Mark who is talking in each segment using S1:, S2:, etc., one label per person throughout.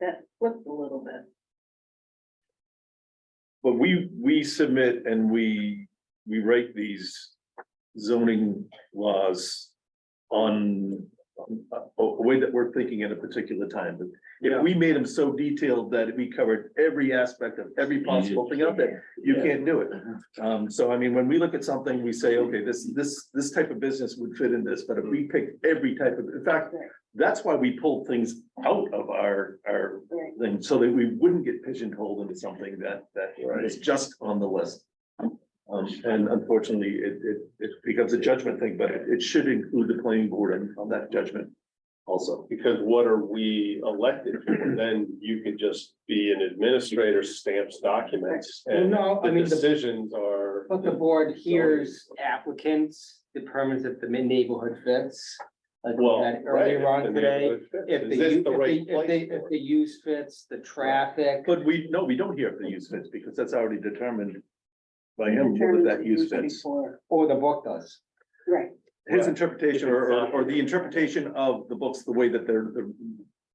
S1: that flipped a little bit.
S2: But we, we submit and we, we write these zoning laws on a, a way that we're thinking at a particular time. But If we made them so detailed that we covered every aspect of every possible thing out there, you can't do it. Um, so I mean, when we look at something, we say, okay, this, this, this type of business would fit in this, but if we pick every type of, in fact, that's why we pulled things out of our, our
S1: Right.
S2: thing, so that we wouldn't get pigeonholed into something that, that is just on the list. Um, and unfortunately, it, it, it becomes a judgment thing, but it, it should include the planning board on, on that judgment also.
S3: Because what are we elected for? Then you can just be an administrator stamps documents
S4: Well,
S3: and
S4: no, I
S3: the
S4: mean, the,
S3: decisions are.
S4: but the board hears applicants, determines if the mid neighborhood fits. Like we
S3: Well,
S4: had
S3: right,
S4: earlier on
S3: if the
S4: today,
S3: neighborhood fits.
S4: if
S3: Is
S4: the,
S3: this
S4: u-
S3: the right
S4: if the, if
S3: place
S4: they,
S3: for
S4: if
S3: it?
S4: the use fits, the traffic.
S2: But we, no, we don't hear if the use fits, because that's already determined by him whether that use fits.
S1: Before.
S4: Or the book does.
S1: Right,
S2: His interpretation or, or- or the interpretation of the books, the way that they're, the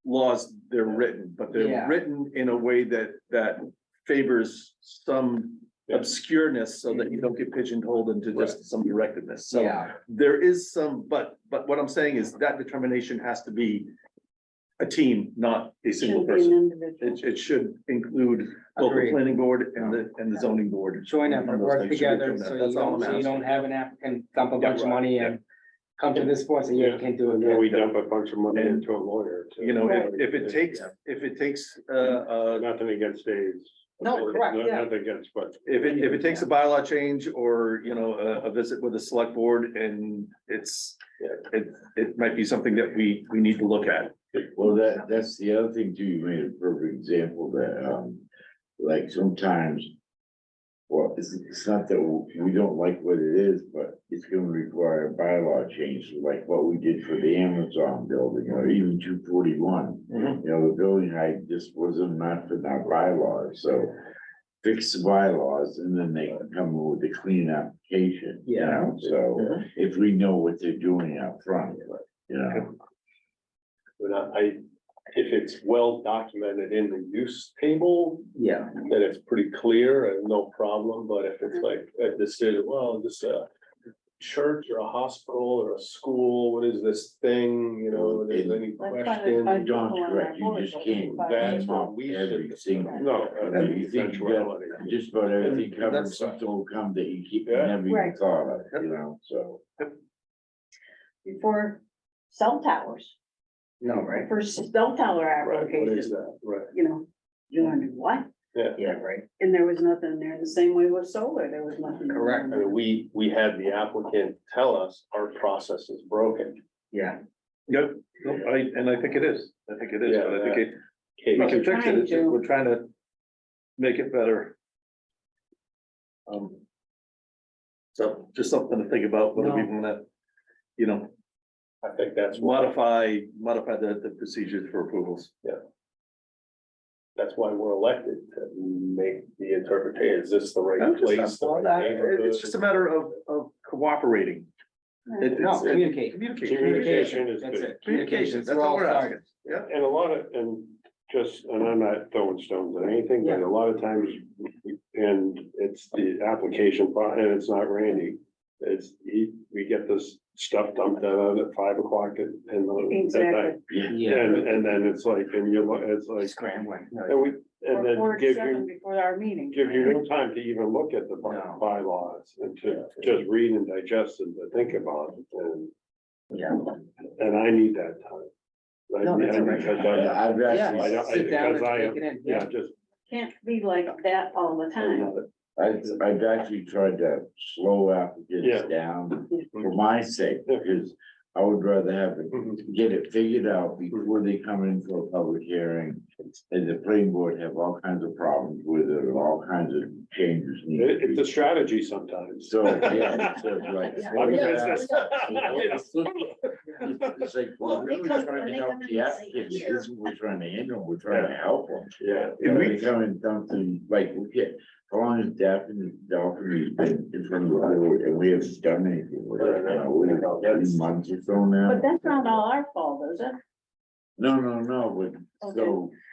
S2: laws, they're written, but they're
S4: Yeah.
S2: written in a way that, that favors some
S3: Yeah.
S2: obscureness so that you don't get pigeonholed into just some directedness. So
S4: Yeah,
S2: there is some, but, but what I'm saying is that determination has to be a team, not a single
S1: should be an
S2: person.
S1: individual.
S2: It, it should include both the
S4: Agreed.
S2: planning board and the, and the zoning board.
S4: join up,
S2: On those
S4: work
S2: things should be
S4: together,
S2: doing
S4: so
S2: that.
S4: you
S2: That's all
S4: don't,
S2: I'm
S4: so you
S2: asking.
S4: don't have an applicant dump a
S2: Yeah,
S4: bunch of
S2: right,
S4: money
S2: yeah.
S4: and come to this point, and you
S3: Yeah.
S4: can't do
S3: Then
S4: it.
S3: we dump a bunch of money
S2: uh, And,
S3: into a lawyer. to-
S2: You know, if, if it takes, if it takes, uh, uh,
S3: Nothing against Dave's.
S4: No, correct,
S3: No-
S4: yeah.
S3: Nothing against, but
S2: If it, if it takes a bylaw change or, you know, a, a visit with the select board and it's, it, it might be something that we, we need to look at.
S5: Well, that, that's the other thing too, you made a perfect example that, um, like sometimes. Well, it's, it's not that we don't like what it is, but it's gonna require a bylaw change, like what we did for the Amazon building or even two forty-one. You know, the building height just wasn't enough in our bylaws, so fix the bylaws and then they can come with a clean application, you know, so. If we know what they're doing up front, you know.
S3: when I, I- if it's well documented in the use table,
S4: Yeah,
S3: then it's pretty clear and no problem. But if
S2: Mm-hmm.
S3: it's like a decision, well, this a church or a hospital or a school, what is this thing, you know,
S2: Mm-hmm.
S3: there's any
S1: Let's find a-
S3: question?
S1: find
S5: John's
S1: someone on
S5: correct,
S1: our
S5: you
S1: board
S5: just
S1: that
S5: can't
S1: can
S3: That's
S1: find-
S3: what we
S5: Every
S3: should.
S5: single-
S3: No. I
S5: Every
S3: think
S5: single-
S3: eventuality.
S5: Just about everything covered,
S2: That's-
S5: something will come that you keep, you
S3: Yeah.
S5: never even
S1: Right.
S5: thought of, you know, so.
S1: Before cell towers,
S4: no, right?
S1: for cell tower
S3: Right, what is
S1: application,
S3: that? Right.
S1: you know, you wonder what?
S4: Yeah, right.
S1: And there was nothing there, the same way with solar, there was nothing. there.
S4: Correct.
S3: I mean, we, we had the applicant tell us our process is broken.
S4: Yeah.
S2: Yep, no, I, and I think it is, I think it is, but I think it,
S3: Okay,
S2: we can fix it, it's just
S1: Trying to-
S2: we're trying to make it better. Um. So just something to think about, whether we
S4: No.
S2: wanna, you know,
S3: I think that's why,
S2: modify, modify the, the procedures for approvals.
S3: that's why we're elected to make the interpretation. Is this the right
S2: I'm just-
S3: place? the
S2: well,
S3: right
S2: that-
S3: neighborhood?
S2: It's just a matter of, of cooperating. It-
S4: No,
S2: it's- it-
S4: communicate.
S2: Communicate.
S3: Communication is
S4: That's
S3: good.
S4: it.
S2: Communication,
S4: Communications,
S2: that's
S4: we're
S2: all
S4: all
S2: we're
S4: starting.
S2: asking. Yeah.
S3: And a lot of, and just, and I'm not throwing stones at anything, but a lot of times, and it's the application, pro- and it's not Randy. It's, he, we get this stuff dumped out at five o'clock at, in the, at night.
S1: Exactly.
S5: Yeah.
S3: And, and then it's like, and you're, lo- it's like,
S4: Scrambling.
S3: and we,
S1: Or
S3: and
S1: four
S3: then
S1: to
S3: give
S1: seven
S3: you,
S1: Before our meeting.
S3: give you no time to even look at the by-
S4: No.
S3: bylaws and to just read and digest and to think about it. And,
S4: Yeah.
S3: and I need that time. I
S4: No,
S3: need-
S4: that's
S3: I
S4: all
S3: need-
S4: right.
S3: because I-
S5: Yeah, I've
S3: I
S4: Yeah,
S3: don't-
S5: actually,
S3: I-
S4: sit down and
S3: because I
S4: take
S3: am-
S4: it in,
S3: Yeah,
S4: yeah.
S3: just.
S1: Can't be like that all the time.
S5: I've, I've actually tried to slow applicants
S3: Yeah.
S5: down for my sake,
S3: Yeah.
S5: because I would rather have it,
S3: Mhm.
S5: get it figured out before they come in for a public hearing. And the planning board have all kinds of problems with it, and all kinds of changes
S3: It, it's
S5: needed.
S3: a strategy sometimes.
S5: So, yeah, so it's like. slow
S3: I'm in
S5: it down.
S3: business.
S5: It's like,
S1: Well,
S5: we're really
S1: because
S5: trying to
S1: when they
S5: help
S1: come in
S5: the
S1: and say,
S5: applicant, it
S1: "Here."
S5: isn't we're trying to handle, we're trying to help them.
S3: Yeah,
S5: And we come and dump them, like, we get, how long has Daphne, Daphne been in front of the board, and we haven't done anything with it, you know, we about three months or so now.
S1: But that's not all our fault, is it?
S5: No, no, no, but,
S1: Okay.
S5: so.